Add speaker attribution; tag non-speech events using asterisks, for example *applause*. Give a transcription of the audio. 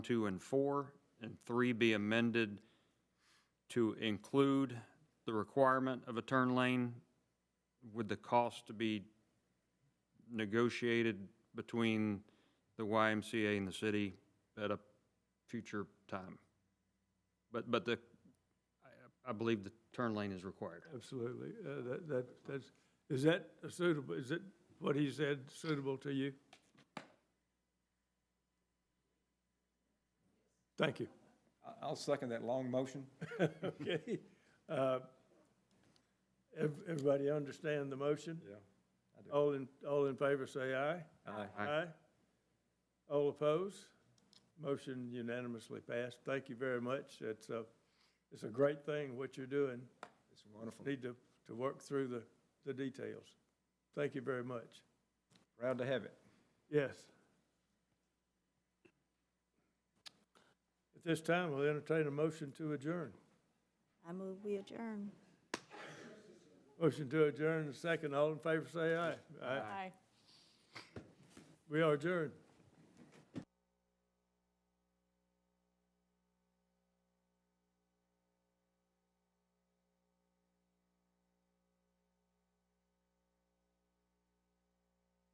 Speaker 1: two and four, and three be amended to include the requirement of a turn lane with the cost to be negotiated between the YMCA and the city at a future time. But, but the, I, I believe the turn lane is required.
Speaker 2: Absolutely. Uh, That, that, that's, is that suitable, is it what he said suitable to you? Thank you.
Speaker 3: I- I'll second that long motion.
Speaker 2: *laughs* Okay. Uh, ev- Everybody understand the motion?
Speaker 3: Yeah. I do.
Speaker 2: All in, all in favor, say aye.
Speaker 3: Aye.
Speaker 1: Aye.
Speaker 2: All opposed? Motion unanimously passed. Thank you very much. It's a, it's a great thing, what you're doing.
Speaker 3: It's wonderful.
Speaker 2: Need to, to work through the, the details. Thank you very much.
Speaker 3: Proud to have it.
Speaker 2: Yes. At this time, we'll entertain a motion to adjourn.
Speaker 4: I move we adjourn.
Speaker 2: Motion to adjourn, second. All in favor, say aye. Aye. We are adjourned.